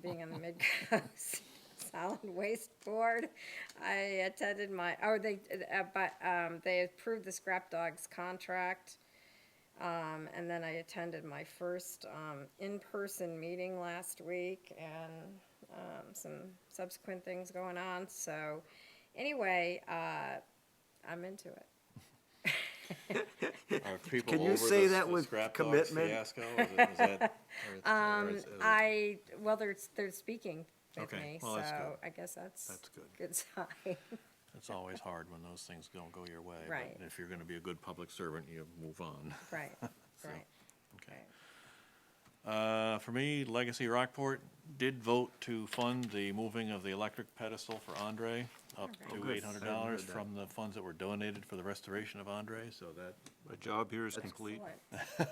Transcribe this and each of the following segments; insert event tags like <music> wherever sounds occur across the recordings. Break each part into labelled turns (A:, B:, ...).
A: goes. <laughs> Solid Waste Board, I attended my, oh, they, uh, but, um, they approved the scrap dogs contract. Um, and then I attended my first, um, in-person meeting last week and, um, some subsequent things going on, so, anyway, uh, I'm into it.
B: Are people
C: Can you
B: over
C: say
B: this-
C: that
B: the
C: with
B: scrap dogs
C: commitment?
B: Fiasco? Is it- is
C: <laughs>
B: that- or- or
A: Um,
B: is- is it-
A: I, well, they're, they're speaking with
B: Okay,
A: me,
B: well, that's
A: so
B: good.
A: I guess that's.
B: That's good.
A: Good sign. <laughs>
B: It's always hard when those things don't go your way. but
A: Right.
B: If you're gonna be a good public servant, you move on. <laughs>
A: Right, right.
B: Okay. Uh, for me, Legacy Rockport did vote to fund the moving of the electric pedestal for Andre up
A: Alright.
B: to
C: Oh, good.
B: eight hundred
C: I haven't heard
B: dollars
C: that.
B: from the funds that were donated for the restoration of Andre, so that,
C: <laughs>
D: My job here is complete.
A: Excellent.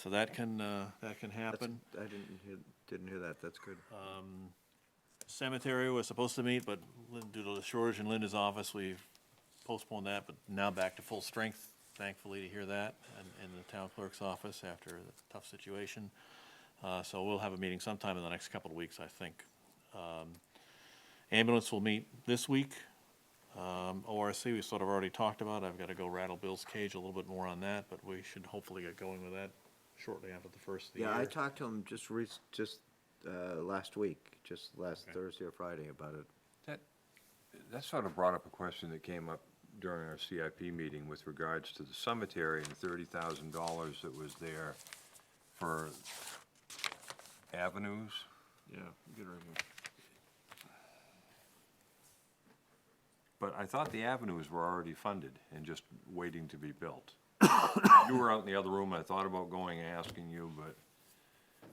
B: so that can, uh, that can
C: That's-
B: happen.
C: I didn't hear, didn't hear that, that's good.
B: Cemetery was supposed to meet, but Lynn- due to the shortage in Linda's office, we postponed that, but now back to full strength, thankfully, to hear that, and in the town clerk's office after the tough situation. Uh, So we'll have a meeting sometime in the next couple of weeks, I think. Um, Ambulance will meet this week. Um, ORC, we sort of already talked about. I've got to go rattle Bill's cage a little bit more on that, but we should hopefully get going with that shortly after the first of the year.
C: Yeah, I talked to him just rec, just, uh, last week, just last
B: Okay.
C: Thursday or Friday about it.
E: That, that sort of brought up a question that came up during our CIP meeting with regards to the cemetery and thirty thousand dollars that was there for avenues.
D: Yeah, get rid of them.
E: But I thought the avenues were already funded and just waiting to be built. You were out in the other room, I thought about going and asking you, but,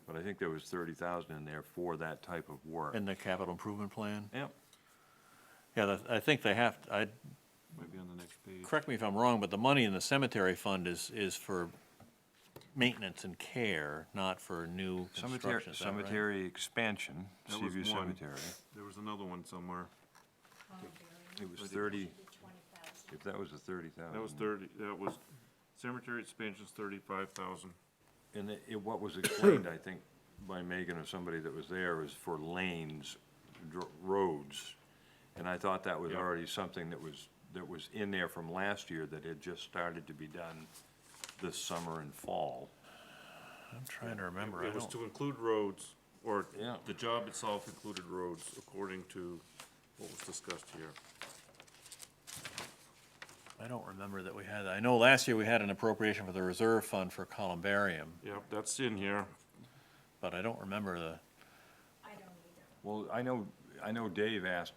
E: but I think there was thirty thousand in there for that type of work.
B: In the capital improvement plan.
E: Yep,
B: Yeah, that- I think they have, I,
D: Might be on the next page.
B: correct me if I'm wrong, but the money in the cemetery fund is, is for maintenance and care, not for new
E: cemetery,
B: construction, is that right?
E: cemetery expansion,
D: That was
E: Seaview
D: one.
E: Cemetery.
D: There was another one somewhere.
E: It was thirty, if that was a thirty thousand.
D: That was thirty, that was, cemetery expansion's thirty-five thousand.
E: And it- it, what was explained, I think, by Megan or somebody that was there, was for lanes, dr- roads. And I thought that was
D: Yeah.
E: already something that was, that was in there from last year that had just started to be done this summer and fall.
B: I'm trying to remember, I
D: It was
B: don't,
D: to include roads, or
E: Yeah.
D: the job itself included roads, according to what was discussed here.
B: I don't remember that we had, that. I know last year we had an appropriation for the reserve fund for columbarium,
D: Yeah, that's in here.
B: but I don't remember the,
F: I don't either.
E: Well, I know, I know Dave asked,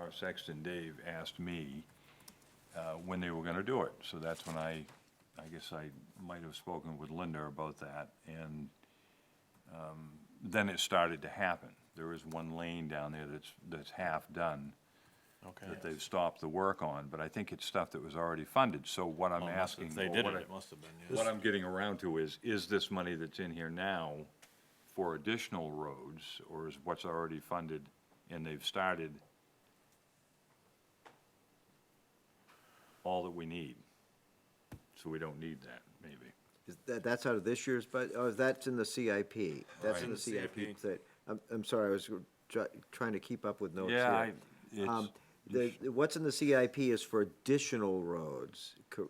E: our sexton Dave asked me, uh, when they were gonna do it, so that's when I, I guess I might have spoken with Linda about that, and, um, then it started to happen. There is one lane down there that's, that's half done, that
B: okay.
E: they've stopped the work on, but I think it's stuff that was already funded, so what I'm
B: Well, it must have-
E: asking.
B: They
E: or
B: did
E: what
B: it,
E: I-
B: it must have been, yeah.
E: what I'm getting around to is, is this money that's in here now for additional roads, or is what's already funded and they've started all that we need? So we don't need that, maybe.
C: Is that, that's out of this year's bud, oh, that's in the CIP, that's in the
D: Right.
C: CIP,
D: CIP.
C: that, I'm, I'm sorry, I was try- trying to keep up with notes here.
E: Yeah, I, it's,
C: Um, the, what's in the CIP is for additional roads, cor-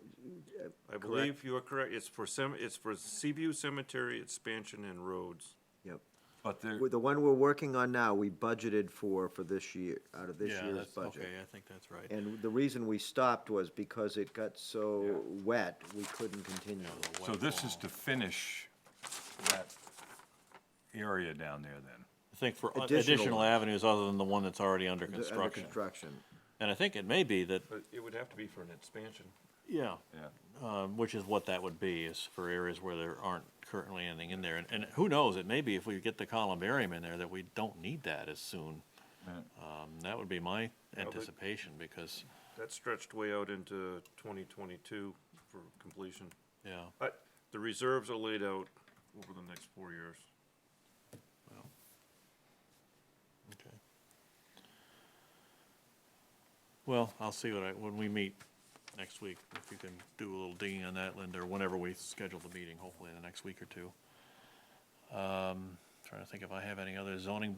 D: I believe you are correct, it's for cem, it's for Seaview Cemetery expansion and roads.
C: yep.
E: but there,
C: With The one we're working on now, we budgeted for, for this year, out of this
B: Yeah,
C: year's
B: that's-
C: budget.
B: Okay, I think that's right.
C: And the reason we stopped was because it got so wet, we couldn't continue. uh,
B: The
E: so
B: wet
E: this is
B: wall.
E: to finish that area down there then?
B: I think for
C: additional
B: additional
C: ones.
B: avenues other than the one that's already under
C: Under- Under
B: construction.
C: construction.
B: And I think it may be that,
D: But it would have to be for an expansion.
B: yeah,
E: Yeah.
B: um, which is what that would be, is for areas where there aren't currently anything in there. And, and who knows, it may be if we get the columbarium in there that we don't need that as soon.
E: Yeah.
B: Um, that would be my
D: but-
B: anticipation, because,
D: That stretched way out into twenty twenty-two for completion.
B: yeah,
D: But the reserves are laid out over the next four years.
B: okay. Well, I'll see what I, when we meet next week, if you can do a little digging on that, Linda, or whenever we schedule the meeting, hopefully in the next week or two. Um, trying to think if I have any other zoning